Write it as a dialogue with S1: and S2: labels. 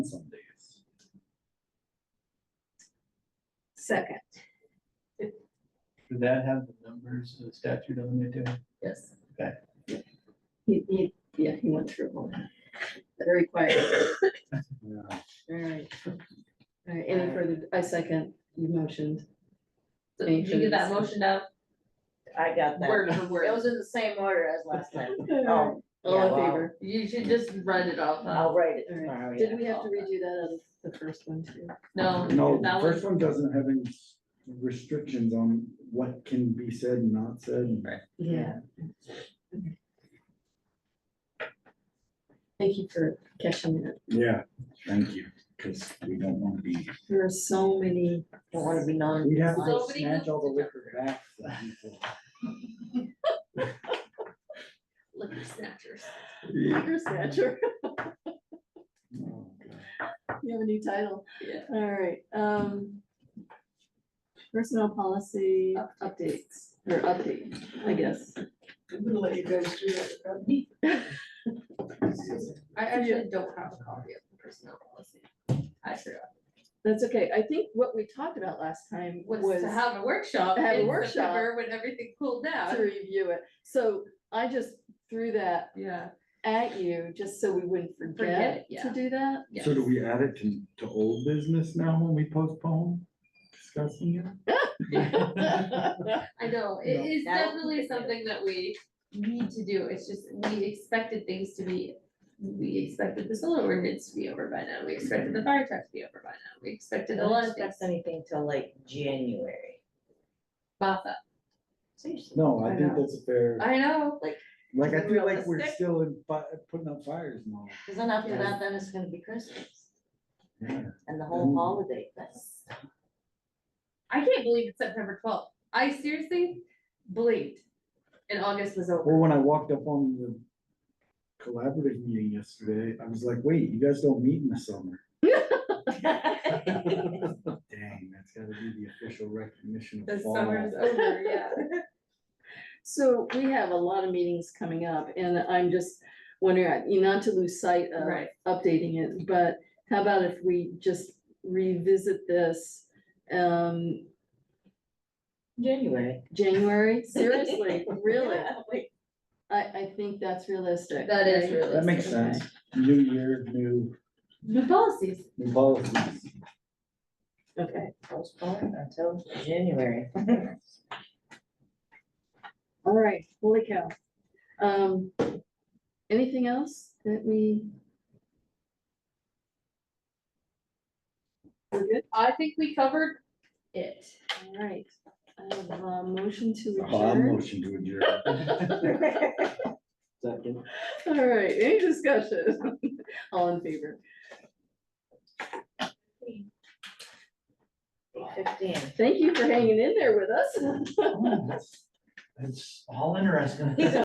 S1: Second,
S2: Did that have the numbers of the statute on it too?
S1: yes.
S2: Okay.
S1: He, he, yeah, he went through all that. Very quiet. All right. All right, any further, I second, you motioned.
S3: So did you get that motion up?
S4: I got that.
S3: Word for
S4: It
S3: word.
S4: was in the same order as last time.
S1: All
S4: Oh, yeah,
S1: in
S4: well,
S1: favor?
S3: You should just run it off. huh?
S4: I'll write it
S1: All right.
S4: tomorrow. yeah.
S1: Did we have to redo that as the first one too?
S3: No.
S5: No, the
S3: that
S5: first
S3: was
S5: one doesn't have any restrictions on what can be said and not said.
S3: Right.
S1: Yeah. Thank you for catching that.
S5: Yeah, thank you, because we don't want to be,
S1: There are so many.
S4: Don't wanna be non.
S5: we'd have to
S3: Um,
S5: go
S3: Nobody
S5: snatch all the
S3: moved.
S5: liquor back. from people.
S3: liquor snatchers.
S1: Liquor snatcher.
S5: Oh, God.
S1: You have a new title.
S3: Yeah.
S1: All right, um. Personnel policy updates, or update, I guess.
S4: I'm gonna let you guys do that.
S3: I actually don't have a copy of the personnel policy. I forgot.
S1: That's okay. I think what we talked about last time
S3: Was
S1: was
S3: to
S1: to
S3: have a workshop
S1: Have a
S3: in
S1: workshop.
S3: September when everything cooled down.
S1: review it. So I just threw that
S3: Yeah.
S1: at you just so we wouldn't
S3: Forget it,
S1: forget
S3: yeah.
S1: to do that.
S3: Yeah.
S5: So do we add it to, to old business now when we postpone discussing it?
S3: I know, it
S5: No.
S3: is
S4: That would
S3: definitely
S4: be good.
S3: something that we need to do, it's just, we expected things to be, we expected the solar ordinance to be over by now, we expected the fire truck to be over by now, we expected a
S4: Don't
S3: lot of things.
S4: expect anything till like January.
S3: Martha,
S4: Seriously.
S5: No,
S1: I
S5: I think
S1: know.
S5: that's fair,
S3: I know, like,
S5: like, I feel like we're
S3: Realistic.
S5: still in, fi- putting up fires and all.
S4: Cause then after
S1: Yeah.
S4: that, then it's gonna be Christmas
S5: Yeah.
S4: and the whole
S5: Mm.
S4: holiday That's
S3: I can't believe it's September twelfth, I seriously blinked, and August was over.
S5: Or when I walked up on the collaborative meeting yesterday, I was like, wait, you guys don't meet in the summer. Dang, that's gotta be the official recognition
S3: The
S5: of fall.
S3: summer is over, yeah,
S1: So we have a lot of meetings coming up and I'm just wondering, you know, not to lose sight of
S3: right,
S1: updating it, but how about if we just revisit this? Um,
S4: January.
S1: January, seriously, really,
S4: Yeah, wait,
S1: I, I think that's realistic.
S3: that is
S1: right?
S3: really.
S5: That makes
S1: Okay.
S5: sense. New year, new,
S3: New policies,
S5: new policies.
S1: Okay,
S4: Postpone until January.
S1: all right, holy cow. Um, anything else that we? We're good,
S3: I think we covered it.
S1: all right. I have a motion to
S5: Oh, I'm
S1: adjourn.
S5: motion to adjourn.
S1: All right, any discussion? All in favor?
S4: Fifteen.
S1: Thank you for hanging in there with us.
S6: It's all interesting.